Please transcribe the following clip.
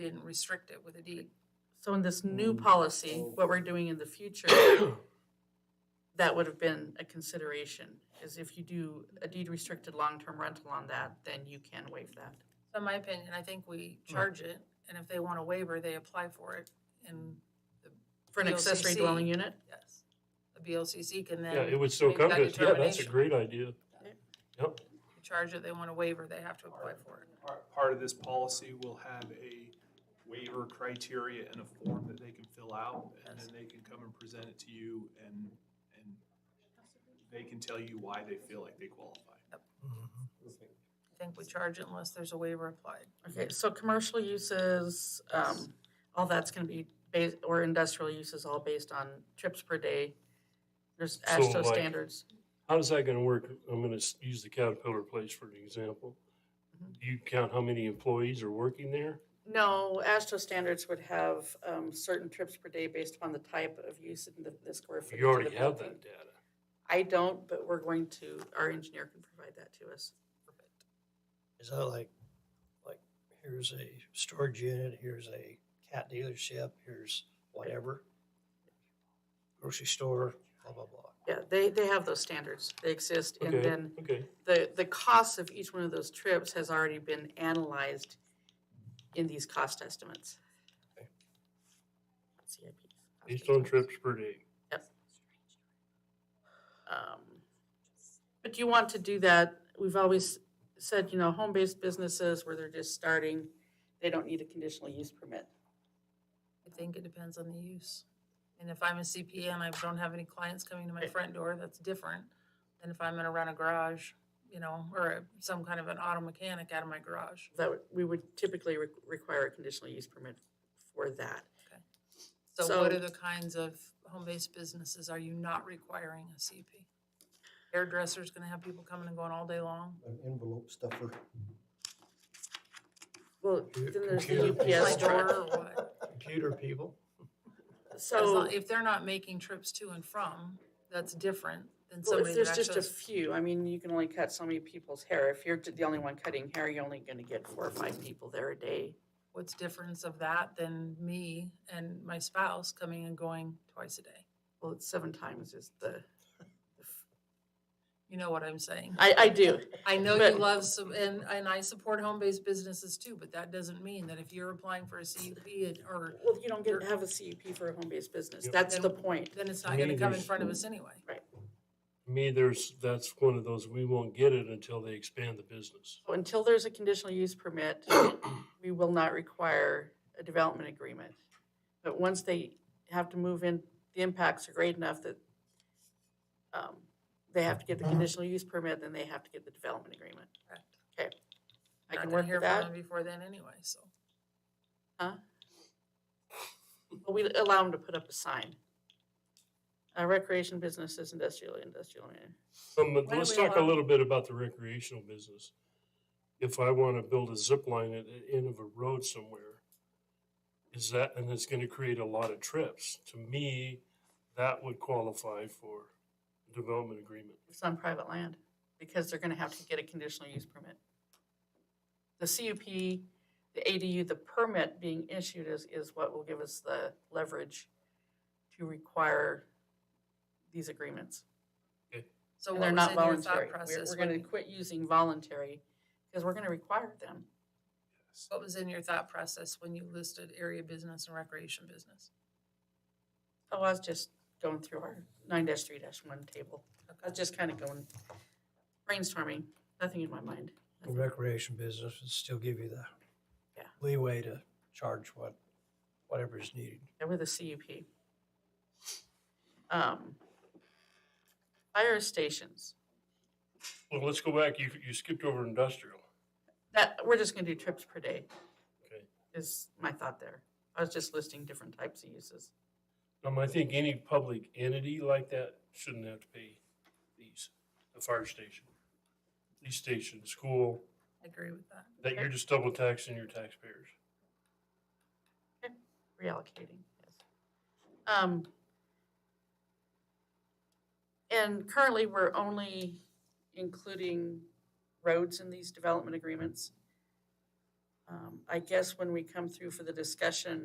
didn't restrict it with a deed. So in this new Mm. policy, Oh. what we're doing in the future, that would have been a consideration, is if you do a deed restricted long-term rental on that, then you can waive that. So in my opinion, I think we charge it, and if they want a waiver, they apply for it, and For an accessory VLCC. dwelling unit? yes, the BLCC can Yeah, it then would still make come that to, us. yeah, that's a determination. great idea. Yeah. Yep, charge it, they want a waiver, they have to apply for it. Part, part of this policy will have a waiver criteria and a form that they can fill out, and then they can come and present it to you, and, and they can tell you why they feel like they qualify. Mm-hmm. I think we charge it unless there's a waiver applied. Okay, so commercial uses, um, all that's gonna be based, or industrial uses, all based on trips per day. There's So, ASHTO like- standards. how's that gonna work? I'm gonna s- use the Caterpillar place for an example. Mhm. Do You count how many employees are working there? No, ASHTO standards would have, um, certain trips per day based upon the type of use and the, the square footage. You of already the have building. that data. I don't, but we're going to, our engineer can provide that to us. Is that like, like, here's a storage unit, here's a cat dealership, here's whatever? Grocery store, blah, blah, blah. Yeah, they, they have those standards. They exist. And Okay, then okay, the, the cost of each one of those trips has already been analyzed in these cost estimates. Okay. CIPs, cost based on estimates. trips per day. Um, But you want to do that, we've always said, you know, home-based businesses where they're just starting, they don't need a conditional use permit. I think it depends on the use. And if I'm a CPA and I don't have any clients coming to my front door, that's different than if I'm gonna run a garage, you know, or a- some kind of an auto mechanic out of my garage. That would, we would typically re- require a conditional use permit for that. So what So- are the kinds of home-based businesses are you not requiring a CUP? Hairdresser's gonna have people coming and going all day long. an envelope stuffer. Well, Computer- then there's the computer UPS My door truck. or what? Computer people, As So, long- If they're not making trips to and from, that's different than well, if somebody that there's just actually. a few, I mean, you can only cut so many people's hair. If you're the only one cutting hair, you're only gonna get four or five people there a day. What's difference of that than me and my spouse coming and going twice a day? Well, it's seven times is the, You know what I'm saying? I, I do. I know you But- love some, and, and I support home-based businesses too, but that doesn't mean that if you're applying for a CUP and- or, Well, you don't get, have a CUP for a home-based business. Yep. That's Then- the point. then it's not gonna Me, come in there's- front of us anyway. Me, there's, that's one of those, we won't get it until they expand the business. So Until there's a conditional use permit, we will not require a development agreement. But once they have to move in, the impacts are great enough that um, they have to get the conditional use permit, then they have to get the development agreement. Correct. Okay. I Not can gonna work hear with from that, them Before then anyway, so. but we allow them to put up a sign. Uh, Recreation businesses, industrial, industrial. eh. Um, but Why do let's we talk a allow- little bit about the recreational business. If I want to build a zip line at the end of a road somewhere, is that, and it's going to create a lot of trips, to me, that would qualify for development agreement. It's on private land, because they're gonna have to get a conditional use permit. The CUP, the ADU, the permit being issued is, is what will give us the leverage to require these agreements. So And they're what was not in your voluntary. thought We're, process? we're gonna when- quit using voluntary, because we're gonna require them. What was in your thought process when you listed area business and recreation business? Oh, I was just going through our nine dash three dash one table. I was just kinda going brainstorming, nothing in my mind. the recreation business would still give you the Yeah. leeway to charge what, whatever is needed. Yeah, with a CUP. Um, Fire stations, Well, let's go back, you, you skipped over industrial. that, we're just gonna do trips per day. Okay. Is my thought there. I was just listing different types of uses. Um, I think any public entity like that shouldn't have to pay these, the fire station, police station, school, I agree with that. that you're just double taxing your taxpayers. reallocating. yes. Um, And currently, we're only including roads in these development agreements. Um, Um, I guess when we come through for the discussion